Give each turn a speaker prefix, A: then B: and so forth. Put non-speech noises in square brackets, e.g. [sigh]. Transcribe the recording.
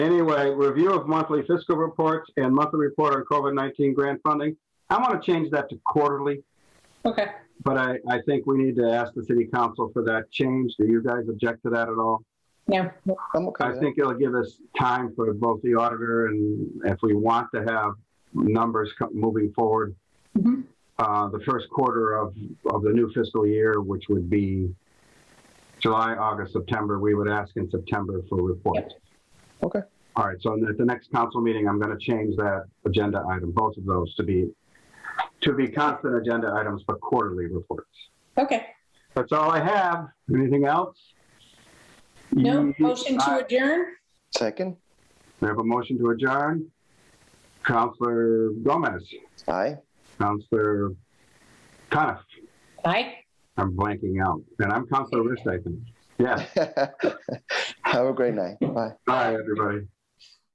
A: anyway, review of monthly fiscal reports and monthly report on COVID-19 grant funding. I want to change that to quarterly,
B: Okay.
A: but I, I think we need to ask the city council for that change. Do you guys object to that at all?
B: Yeah.
C: I'm okay.
A: I
C: with
A: think it'll give us time for both the auditor and if we want to have numbers co- moving forward.
B: Mhm.
A: Uh, the first quarter of, of the new fiscal year, which would be July, August, September, we would ask in September for reports.
C: that. Okay.
A: All right, so at the next council meeting, I'm gonna change that agenda item, both of those to be, to be constant agenda items, but quarterly reports.
B: Okay.
A: That's all I have. Anything else?
B: No
A: You-
B: motion
A: I-
B: to adjourn.
C: Second.
A: We have a motion to adjourn. Counselor Gomez,
C: Aye.
A: Counselor Coniff,
B: Aye.
A: I'm blanking out, and I'm Counselor Rist, I think. Yes,
C: [laughs] Have a great night. Bye.
A: bye, everybody.